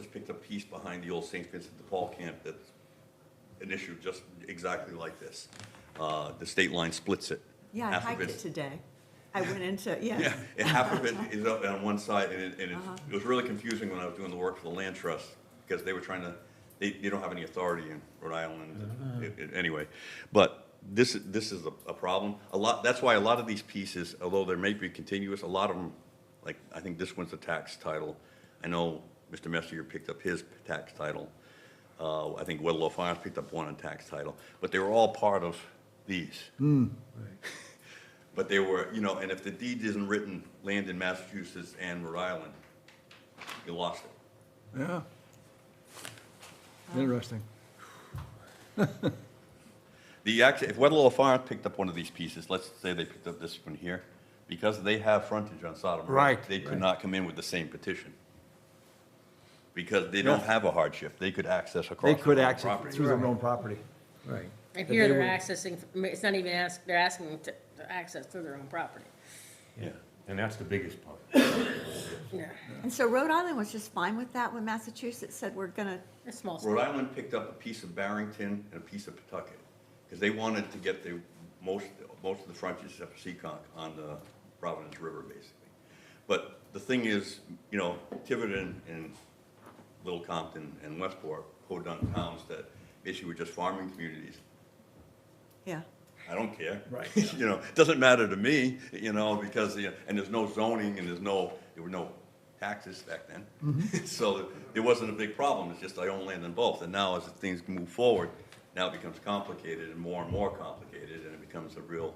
just picked a piece behind the old St. Vincent de Paul camp that's an issue just exactly like this. Uh, The state line splits it. Yeah, I Half of hiked it it's- today. I went into, yeah. Yeah, and half of it is up on one side, and it, and it's- it was really confusing when I was doing the work for the land trust, because they were trying to, they, they don't have any authority in Rhode Island, it- it- anyway. But this, this is a, a problem, a lot, that's why a lot of these pieces, although there may be continuous, a lot of them, like, I think this one's a tax title. I know Mr. Messier picked up his tax title, uh, I think Weddell Farms picked up one on tax title, but they were all part of these. But they were, you know, and if the deed isn't written, land in Massachusetts and Rhode Island, you lost it. Yeah. Interesting. The, act- if Weddell Farms picked up one of these pieces, let's say they picked up this one here, because they have frontage on Sodom Road. Right. They could not come in with the same petition. Because they don't have a hardship, they could access across They their could own access it property. through their own property. Right. And But here they they're would- accessing, it's not even ask, they're asking to, to access through their own property. Yeah, and that's the biggest part. Yeah, And so Rhode Island was just fine with that when Massachusetts said we're gonna, it's small. stuff. Rhode Island picked up a piece of Barrington and a piece of Pawtucket, because they wanted to get the, most, most of the frontage up Seekonk on the Providence River, basically. But the thing is, you know, Tiverton and Little Compton and Westport, podunk towns that basically were just farming communities. yeah. I don't care. Right. You know, it doesn't matter to me, you know, because, you know, and there's no zoning and there's no, there were no taxes back then. So it wasn't a big problem, it's just I own land in both. And now as things move forward, now it becomes complicated and more and more complicated and it becomes a real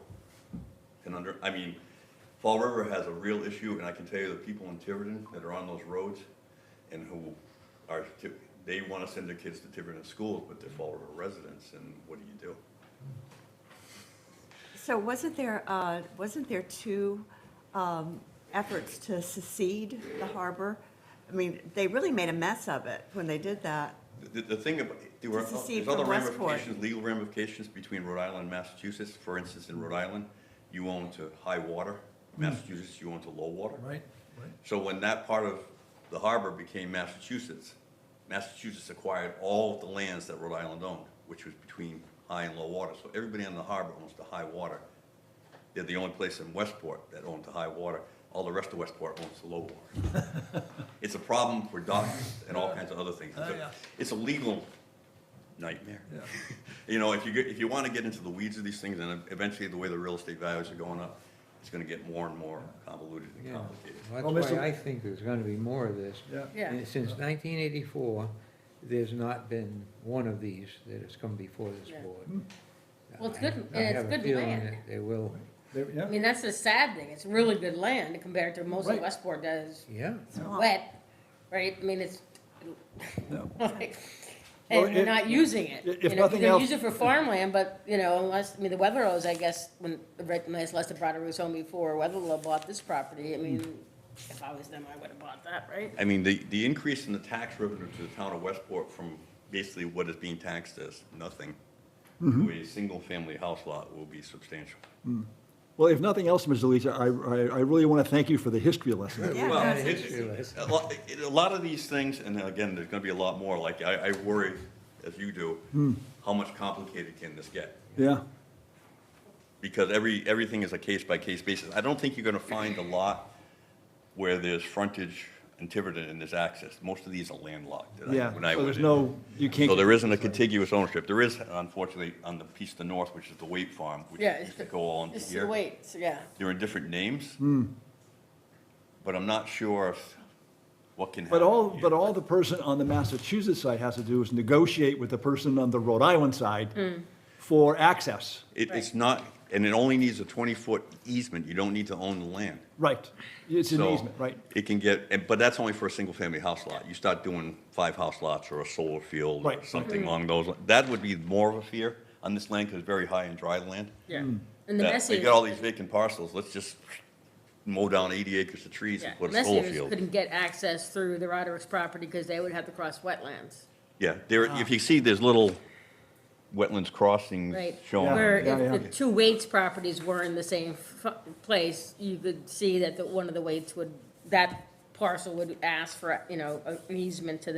conundrum. I mean, Fall River has a real issue and I can tell you the people in Tiverton that are on those roads and who are, Ti- they want to send their kids to Tiverton schools, but they're Fall River residents and what do you do? So wasn't there, uh, wasn't there two um, efforts to secede the harbor? I mean, they really made a mess of it when they did that. The, the thing about, there were, To secede there's other from Westport. ramifications, legal ramifications between Rhode Island and Massachusetts. For instance, in Rhode Island, you own to high water, Massachusetts, you own to low water. Hmm. Right. So when that part of the harbor became Massachusetts, Massachusetts acquired all of the lands that Rhode Island owned, which was between high and low water. So everybody on the harbor owns to high water. They're the only place in Westport that owned to high water. All the rest of Westport owns to low water. It's a problem for docks and all kinds of other things. It's Oh, yeah. a- It's a legal nightmare. You know, if you, get- if you want to get into the weeds of these things, and eventually the way the real estate values are going up, it's going to get more and more convoluted and Yeah, complicated. Well, Well, that's Mr. why I think there's gonna be more of this. Yeah. Yeah. And Since nineteen eighty-four, there's not been one of these that has come before this Yeah. board. Well, it's I- good- I and it's have a good feeling land. that They will, There- I Yeah, mean, that's the sad thing, it's really good land compared to most of Right. Westport that is yeah. wet, right? I mean, it's, no. like, Well, and we're if- not using it. if You know, nothing they else- Use it for farmland, but, you know, unless, I mean, the Weatherlow's, I guess, when, right, unless Lester Broderick was home before Weatherlow bought this property, I mean, if I was them, I would have bought that, right? I mean, the, the increase in the tax revenue to the town of Westport from basically what is being taxed as nothing to Mm-hmm. a single-family house lot will be substantial. Well, if nothing else, Ms. Delisa, I, I I really want to thank you for the history lesson. Yeah, Well, no, it's- it's- it's- A lot, it- a lot of these things, and again, there's gonna be a lot more, like, I, I worry, as you Hmm. do, how much complicated can this get? Yeah, because every, everything is a case-by-case basis. I don't think you're gonna find a lot where there's frontage in Tiverton and there's access. Most of these are landlocked. that I- yeah. when I So was there's in. no, you can't. So there isn't a contiguous ownership. There is, unfortunately, on the piece to the north, which is the Waite Farm, which Yeah, used to go all into It's here. the weights, yeah. There are different names. Hmm. But I'm not sure if, what can happen. But all, here. but all the person on the Massachusetts side has to do is negotiate with the person on the Rhode Island side for access. It, it's not, and it only needs a twenty-foot easement. You don't need to own the land. Right. It's an So, easement, right? It can get, and- but that's only for a single-family house lot. You start doing five house lots or a solar field or Right. something Mm-hmm. along those, li- that would be more of a fear on this land because it's very high in dry land. Yeah. And the That- messy. They got all these vacant parcels, let's just mow down eighty acres of trees Yeah, and put a solar Messier's field. couldn't get access through the Roderick's property because they would have to cross wetlands, Yeah, there, if you see, there's little wetlands crossings right? shown. Where Yeah, yeah. if the two Waits properties were in the same fu- place, you could see that the, one of the Waits would, that parcel would ask for, you know, an easement to